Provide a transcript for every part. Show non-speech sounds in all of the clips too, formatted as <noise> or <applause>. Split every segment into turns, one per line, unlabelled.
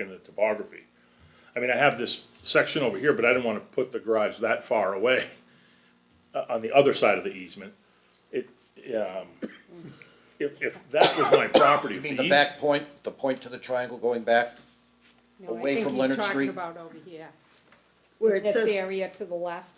in the topography. I mean, I have this section over here, but I didn't wanna put the garage that far away, uh, on the other side of the easement. It, um, if, if that was my property,
You
if
mean
the
the
eas-
back point, the point to the triangle going back?
No, I
Away
think
from
he's
Leonard
talking
Street?
About over here,
Where it
this
says,
area to the left.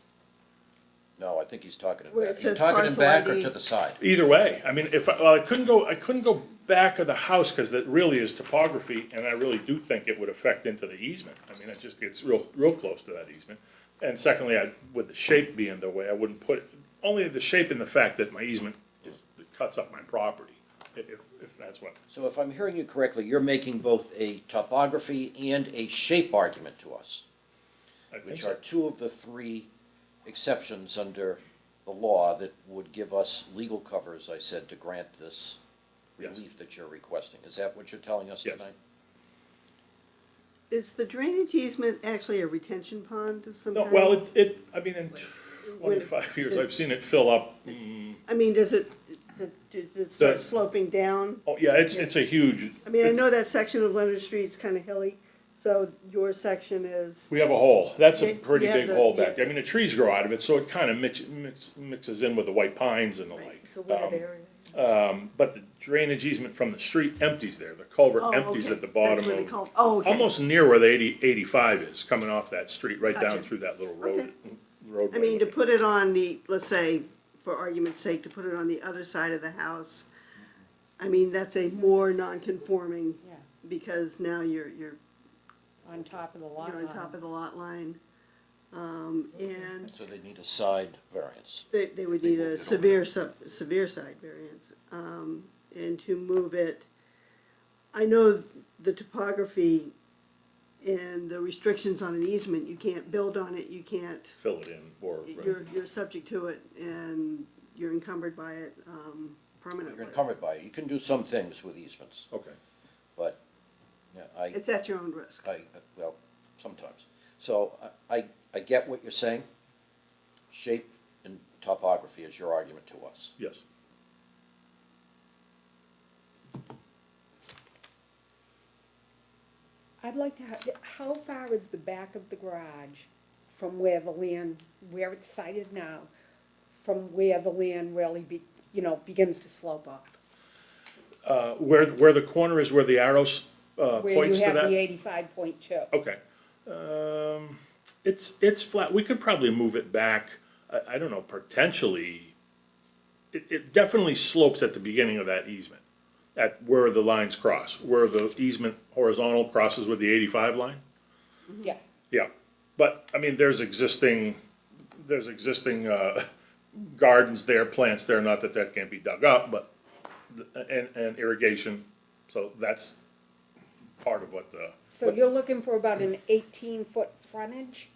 No, I think he's talking it
Where it
back. You
says
talking it
parcel
back or
ID.
to the side?
Either way, I mean, if, I- well, I couldn't go, I couldn't go back of the house, cause that really is topography, and I really do think it would affect into the easement. I mean, it just gets real, real close to that easement. And secondly, I, with the shape being the way, I wouldn't put, it only the shape and the fact that my easement is, cuts up my property, i- if, if that's what.
So if I'm hearing you correctly, you're making both a topography and a shape argument to us,
I think
which
so.
are two of the three exceptions under the law that would give us legal cover, as I said, to grant this
Yes.
relief that you're requesting. Is that what you're telling us
Yes.
tonight?
is the drainage easement actually a retention pond of some
No,
kind?
well, it, it, I mean, in twenty-five years,
the-
I've seen it fill up, mm,
I mean, does it, does- does it start
The-
sloping down?
oh, yeah, it's, it's a huge.
I mean, I know that section of Leonard Street's kind of hilly, so your section is,
We have a hole, that's
Yeah,
a pretty
yeah,
big
the-
hole back
yeah.
there, I mean, the trees grow out of it, so it kinda mix, mix, mixes in with the white pines and the like.
It's a wooded
Um,
area.
But the drainage easement from the street empties there, the culvert
Oh,
empties
okay.
at the bottom
That's where the
of,
cul- oh, okay.
almost near where the eighty, eighty-five is, coming off that street, right down
Gotcha.
through that little
Okay.
road, roadway.
I mean, to
there.
put it on the, let's say, for argument's sake, to put it on the other side of the house, I mean, that's a more non-conforming,
Yeah,
because now you're, you're,
on top of the lot
you're
line.
on top of the lot line. Um, and
So they need a side variance.
They, they would
They
need
moved
a
it over.
severe sub, severe side variance, um, and to move it. I know the topography and the restrictions on an easement, you can't build on it, you can't,
Fill it in, or,
you're, you're subject to it and you're encumbered by it, um,
You're
permanently.
encumbered by it. You can do some things with easements,
okay,
but, yeah, I.
It's at your own risk.
I, well, sometimes. So I, I- I get what you're saying. Shape and topography is your argument to us.
yes.
I'd like to, ha- how far is the back of the garage from where the land, where it's sited now, from where the land really be, you know, begins to slope off?
Uh, Where, where the corner is where the arrows, uh,
Where you
points to that? Oh.
have the eighty-five point two.
Okay. Um, it's, it's flat, we could probably move it back, I, I don't know, potentially. It, it definitely slopes at the beginning of that easement, at where the lines cross, where the easement horizontal crosses with the eighty-five line.
Mm-hmm. Yeah,
Yeah, but, I mean, there's existing, there's existing, uh, <laughs> gardens there, plants there, not that that can't be dug up, but, and, and irrigation, so that's part of what the.
so you're looking for about an eighteen-foot frontage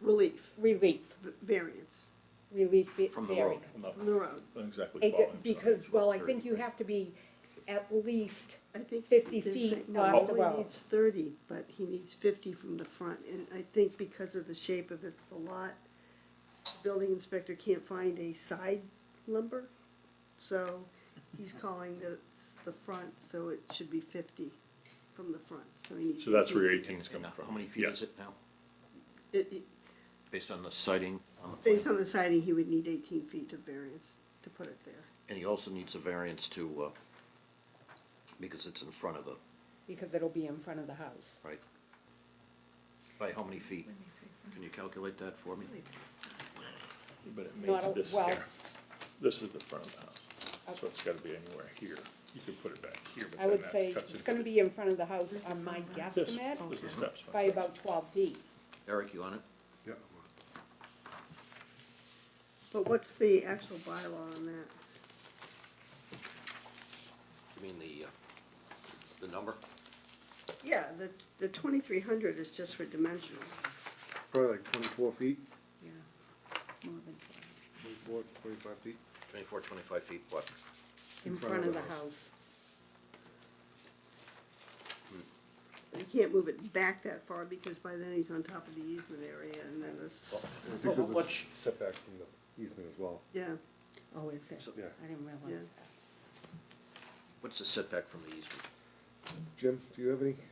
Relief,
relief,
v- variance
relief be-
From the
variance.
road.
no.
from the road.
Don't Exactly
It-
follow him, sorry.
Because, well, I think you have to be at least,
I think
50
they're
feet
saying- no,
off the
He
road.
only needs thirty, but he needs fifty from the front, and I think because of the shape of the, the lot, the building inspector can't find a side lumber, so he's calling that it's the front, so it should be fifty from the front, so he needs.
So that's where your
50.
eighteen's coming from.
How many feet
Yeah.
is it now,
It- it-
based on the sighting on the
Based
plan?
on the siding, he would need eighteen feet of variance to put it there.
And he also needs a variance to, uh, because it's in front of the,
because it'll be in front of the house.
right? By how many feet? Can you calculate that for me?
But it
Not
means
a-
this
well-
here. This is the front of the house, so it's gotta be anywhere here. You can put it back here, but
I
then
would
that
say
cuts
it's
into
gonna
the-
be in front of the house on my
This,
guesstimate
this is the steps.
by about twelve feet.
Eric, you on it?
But what's the actual bylaw on that?
You mean the, uh, the number?
Yeah, the, the twenty-three hundred is just for dimensional.
Probably like twenty-four feet,
Yeah, it's more than twelve.
twenty-four, twenty-five feet.
Twenty-four, twenty-five feet, what?
In front of the house.
You can't move it back that far because by then he's on top of the easement area and then it's,
It's
Well,
Because
what-
it's setback from the easement as well.
yeah,
Oh, is it?
Yeah.
I didn't realize
Yeah.
that.
What's the setback from the easement?
Jim, do you have any?